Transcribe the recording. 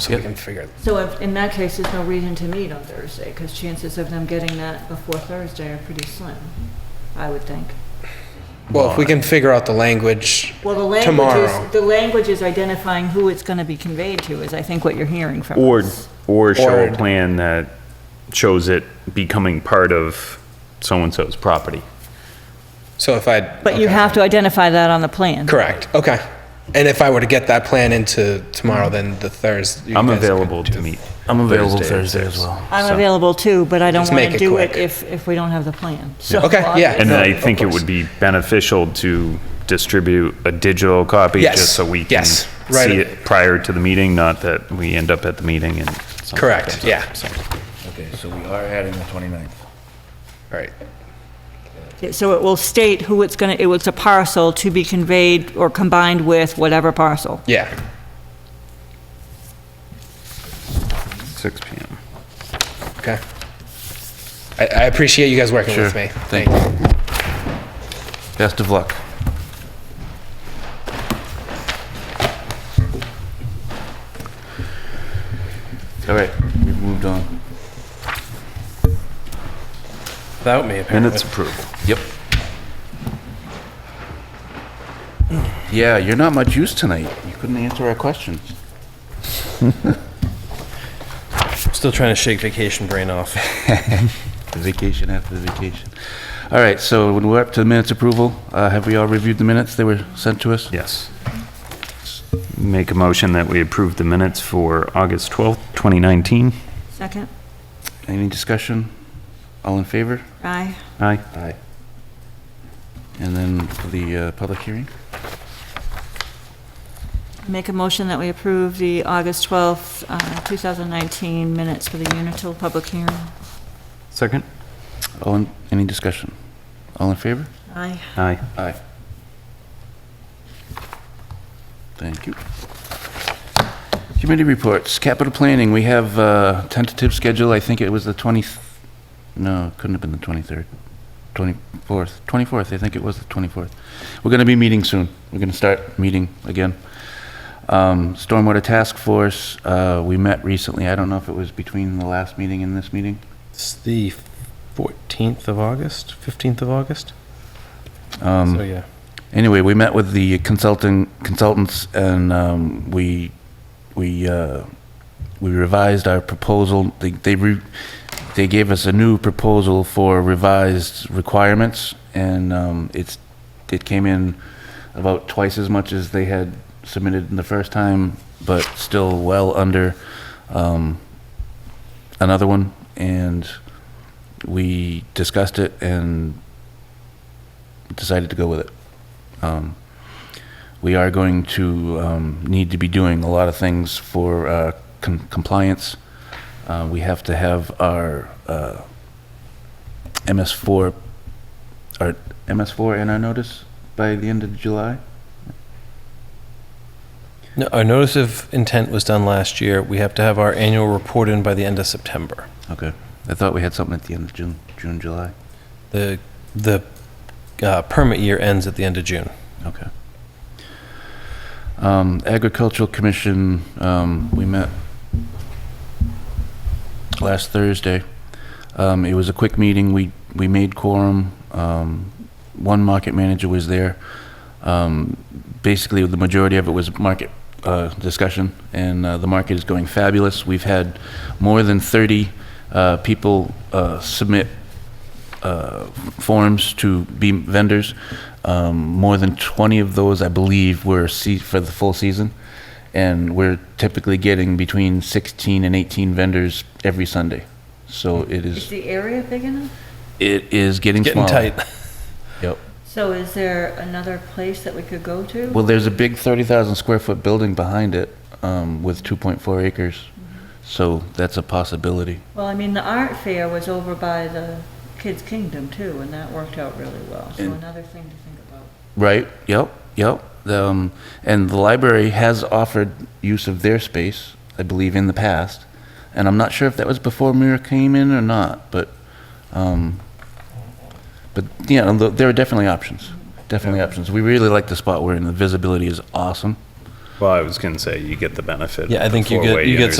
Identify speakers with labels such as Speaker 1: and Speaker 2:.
Speaker 1: so we can figure.
Speaker 2: So if, in that case, there's no reason to meet on Thursday, because chances of them getting that before Thursday are pretty slim, I would think.
Speaker 1: Well, if we can figure out the language,
Speaker 2: Well, the language
Speaker 1: Tomorrow.
Speaker 2: is, the language is identifying who it's gonna be conveyed to, is I think what you're hearing from
Speaker 3: Or,
Speaker 2: us.
Speaker 3: or show
Speaker 1: Or-
Speaker 3: a plan that shows it becoming part of so-and-so's property.
Speaker 1: so if I.
Speaker 2: But you
Speaker 1: okay.
Speaker 2: have to identify that on the plan.
Speaker 1: Correct, okay. And if I were to get that plan into tomorrow, then the Thursday.
Speaker 3: I'm available to meet.
Speaker 4: I'm available
Speaker 3: Thursday at
Speaker 4: Thursday as
Speaker 3: six.
Speaker 4: well.
Speaker 2: I'm
Speaker 3: So-
Speaker 2: available too, but I don't
Speaker 1: Just make
Speaker 2: wanna
Speaker 1: it
Speaker 2: do it
Speaker 1: quick.
Speaker 2: if, if we don't have the plan, so.
Speaker 1: Okay, yeah.
Speaker 3: And
Speaker 1: No,
Speaker 3: I
Speaker 1: of
Speaker 3: think it
Speaker 1: course.
Speaker 3: would be beneficial to distribute a digital copy,
Speaker 1: Yes,
Speaker 3: just so we can
Speaker 1: yes,
Speaker 3: see
Speaker 1: right.
Speaker 3: it prior to the meeting, not that we end up at the meeting and. something
Speaker 1: Correct,
Speaker 3: comes up.
Speaker 1: yeah,
Speaker 4: Okay, so we are adding the 29th.
Speaker 1: right.
Speaker 2: So it will state who it's gonna, it was a parcel to be conveyed or combined with whatever parcel.
Speaker 1: Yeah,
Speaker 3: Six PM.
Speaker 1: okay. I, I appreciate you guys working with
Speaker 4: Sure.
Speaker 1: me. Thank you.
Speaker 4: Best of luck. All right, we've moved on.
Speaker 1: Without me, apparently.
Speaker 3: Minutes approved.
Speaker 4: Yep. Yeah, you're not much use tonight. You couldn't answer our questions.
Speaker 5: Still trying to shake vacation brain off.
Speaker 4: The Vacation after the vacation. All right, so when we're up to the minutes approval, uh, have we all reviewed the minutes that were sent to us?
Speaker 3: Yes. Make a motion that we approve the minutes for August 12th, 2019.
Speaker 2: Second?
Speaker 4: Any discussion? All in favor?
Speaker 2: Aye.
Speaker 3: Aye.
Speaker 4: Aye. And then for the uh, public hearing?
Speaker 2: Make a motion that we approve the August 12th, uh, 2019 minutes for the Unitil public hearing.
Speaker 3: Second?
Speaker 4: All in, any discussion? All in favor?
Speaker 2: Aye.
Speaker 3: Aye.
Speaker 4: Aye. Thank you. Committee reports, capital planning, we have uh, tentative schedule, I think it was the 20th, no, couldn't have been the 23rd, 24th, 24th, I think it was the 24th. We're going to be meeting soon, we're going to start meeting again. Um, Stormwater Task Force, uh, we met recently, I don't know if it was between the last meeting and this meeting.
Speaker 5: It's the 14th of August, 15th of August.
Speaker 4: Um,
Speaker 5: so yeah,
Speaker 4: Anyway, we met with the consultant, consultants, and um, we, we, uh, we revised our proposal. They, they re- they gave us a new proposal for revised requirements, and um, it's, it came in about twice as much as they had submitted in the first time, but still well under um, another one. And we discussed it and decided to go with it um, we are going to um, need to be doing a lot of things for uh, com- compliance. Uh, we have to have our uh, MS4, our MS4 in our notice by the end of July.
Speaker 5: no, our notice of intent was done last year. We have to have our annual report in by the end of September.
Speaker 4: Okay. I thought we had something at the end of June, June, July.
Speaker 5: The the uh, permit year ends at the end of June.
Speaker 4: Okay. Um, Agricultural Commission, um, we met last Thursday. Um, it was a quick meeting. We, we made quorum. Um, one market manager was there. Um, basically, the majority of it was market, uh, discussion, and, uh, the market is going fabulous. We've had more than thirty, uh, people, uh, submit, uh, forms to be vendors. Um, more than 20 of those, I believe, were se- for the full season. And we're typically getting between 16 and 18 vendors every Sunday. So it
Speaker 2: Is
Speaker 4: is,
Speaker 2: the area big enough?
Speaker 4: it is getting
Speaker 5: Getting
Speaker 4: smaller.
Speaker 5: tight.
Speaker 4: Yep.
Speaker 2: So is there another place that we could go to?
Speaker 4: Well, there's a big 30,000 square foot building behind it um, with 2.4 acres. So that's a possibility.
Speaker 2: Well, I mean, the art fair was over by the Kids Kingdom too, and that worked out really well, so
Speaker 4: And-
Speaker 2: another thing to think about.
Speaker 4: Right, yep, yep. The, Um, and the library has offered use of their space, I believe, in the past. And I'm not sure if that was before Mira came in or not, but, um, but, you know, th- there are definitely options. Definitely options. We really like the spot we're in. The visibility is awesome.
Speaker 3: Well, I was going to say, you get the benefit.
Speaker 5: Yeah, I
Speaker 3: of the
Speaker 5: think you get-
Speaker 3: four-way
Speaker 5: you get
Speaker 3: unitary